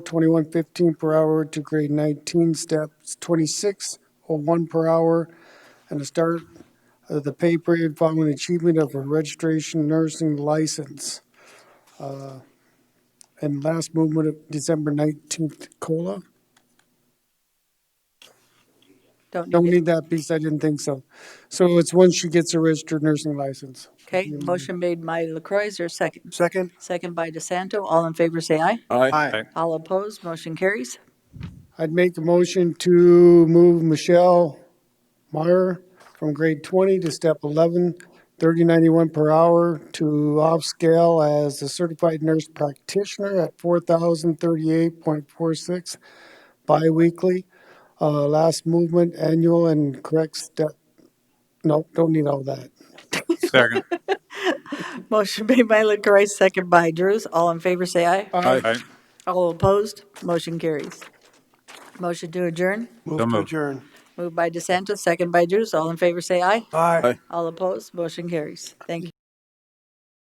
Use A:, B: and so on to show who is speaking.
A: twenty-one fifteen per hour to grade nineteen, steps twenty-six oh one per hour, and the start of the pay period following achievement of a registration nursing license. Uh, And last movement of December nineteenth, COLA.
B: Don't
A: Don't
B: need it.
A: need that piece, I didn't think so. So it's once she gets a registered nursing license.
B: Okay, motion made by LaCroy, is there a second?
C: Mm-hmm. Second?
B: Second by DeSanto, all in favor say aye.
C: Aye.
B: All opposed, motion carries.
A: I'd make a motion to move Michelle Meyer from grade 20 to step 11, 3091 per hour to off-scale as a certified nurse practitioner at 4,038.46 biweekly, uh, last movement, annual, and correct step. Nope, don't need all that.
D: Second.
B: Motion made by LaCroy, second by Drews, all in favor say aye.
D: Aye.
B: All opposed, motion carries. Motion to adjourn,
D: So
C: Move to
D: moved.
C: adjourn.
B: moved by DeSanto, second by Drews, all in favor say aye.
C: Aye.
B: All opposed, motion carries. Thank you.